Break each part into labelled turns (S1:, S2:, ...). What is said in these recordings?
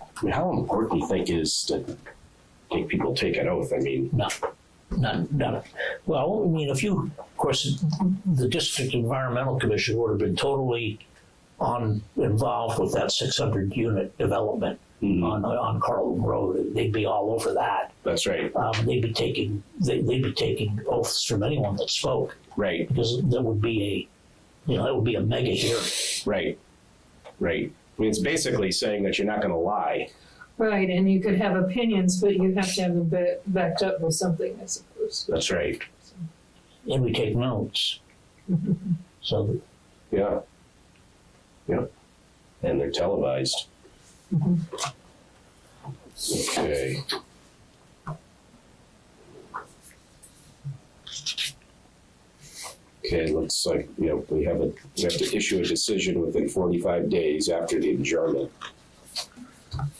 S1: I mean, how important do you think is to make people take an oath? I mean,
S2: No, none, none. Well, I mean, if you, of course, the district environmental commission would have been totally on, involved with that six hundred unit development on, on Carlton Road. They'd be all over that.
S1: that's right,
S2: Um, they'd be taking, they, they'd be taking oaths from anyone that spoke
S1: right,
S2: because that would be a, you know, that would be a mega hearing.
S1: right, right. I mean, it's basically saying that you're not going to lie.
S3: Right, and you could have opinions, but you have to have them ba- backed up with something, I suppose.
S1: That's right.
S2: and we take notes. So,
S1: Yeah. Yeah. And they're televised.
S3: Mhm.
S1: Okay. Okay, it looks like, you know, we have a, we have to issue a decision within forty-five days after the adjournment.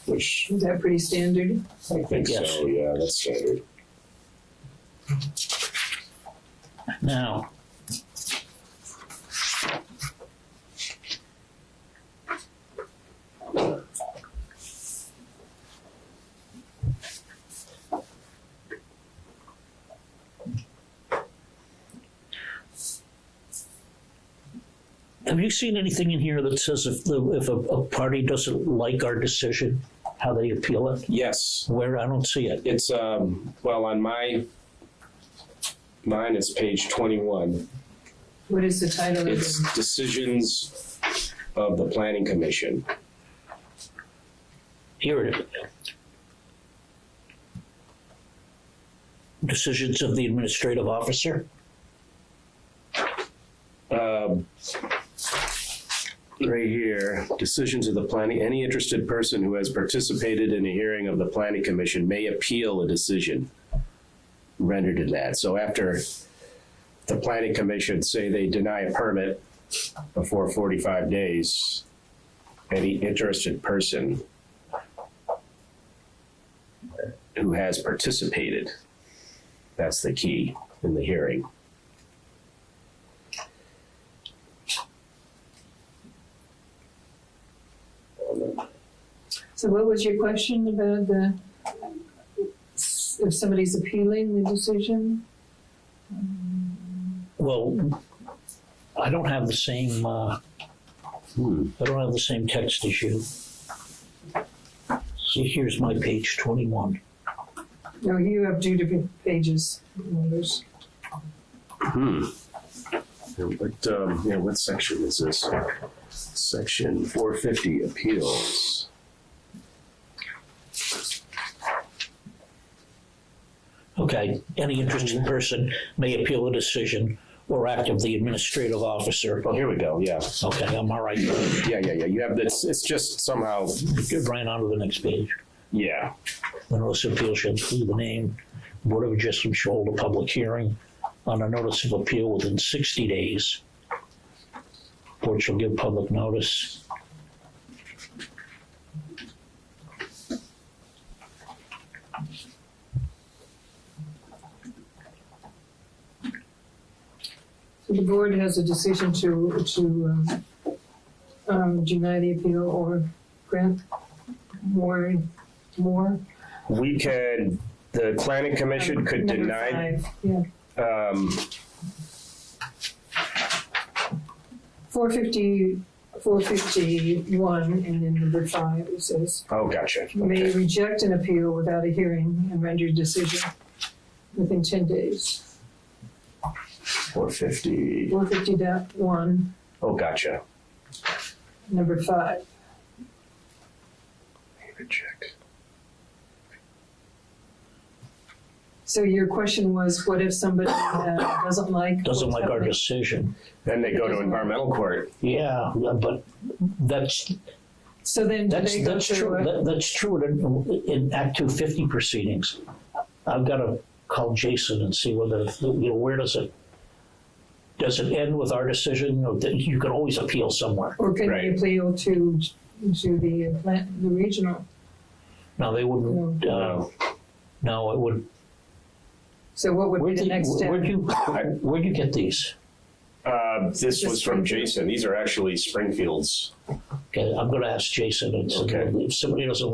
S1: Which
S3: Is that pretty standard?
S1: I think
S2: Yes.
S1: so, yeah, that's standard.
S2: now, have you seen anything in here that says if the, if a, a party doesn't like our decision, how they appeal it?
S1: Yes,
S2: Where, I don't see it.
S1: It's, um, well, on my, mine is page twenty-one.
S3: What is the title of
S1: It's
S3: it?
S1: decisions of the planning commission.
S2: Here it is. Decisions of the administrative officer?
S1: Um, Right here, decisions of the planning, any interested person who has participated in a hearing of the planning commission may appeal a decision rendered in that. So after the planning commission say they deny a permit before forty-five days, any interested person who has participated, that's the key in the hearing.
S3: So what was your question about the, if somebody's appealing the decision?
S2: Well, I don't have the same, uh,
S1: Hmm.
S2: I don't have the same text as you. See, here's my page twenty-one.
S3: No, you have two different pages, numbers.
S1: Hmm. Yeah, What, um, yeah, what section is this? Section four fifty appeals.
S2: Okay, any interested person may appeal a decision or act of the administrative officer.
S1: Oh, here we go, yeah,
S2: Okay, I'm all right.
S1: yeah, yeah, yeah, you have this, it's just somehow,
S2: Get right on to the next page.
S1: yeah,
S2: The notice of appeal shall include the name, Board of Adjustment shall hold a public hearing on a notice of appeal within sixty days. Board shall give public notice.
S3: So the board has a decision to, to, um, um, deny the appeal or grant more, more.
S1: we could, the planning commission could
S3: Number
S1: deny,
S3: five, Yeah.
S1: um,
S3: Four fifty, four fifty-one, and then number five, it says,
S1: oh, gotcha,
S3: may
S1: okay,
S3: reject an appeal without a hearing and render a decision within ten days.
S1: four fifty,
S3: Four fifty dot one,
S1: oh, gotcha.
S3: number five.
S1: Reject.
S3: So your question was, what if somebody uh, doesn't like?
S2: Doesn't like our decision.
S1: Then they go to environmental court,
S2: Yeah, but that's,
S3: So then do
S2: that's,
S3: they go
S2: that's true.
S3: through, a-
S2: That- That's true in, in Act two fifty proceedings. I've got to call Jason and see whether, you know, where does it, does it end with our decision? Or that You can always appeal somewhere.
S3: or can they
S1: Right.
S3: appeal to, to the plant, the regional?
S2: No, they wouldn't, uh, no, it would,
S3: So what would be
S2: where'd
S3: the
S2: you,
S3: next step?
S2: where'd you, where'd you get these?
S1: uh, this
S3: Just
S1: was from
S3: Springfield.
S1: Jason, these are actually Springfield's.
S2: Okay, I'm gonna ask Jason, and so
S1: Okay.
S2: if somebody doesn't like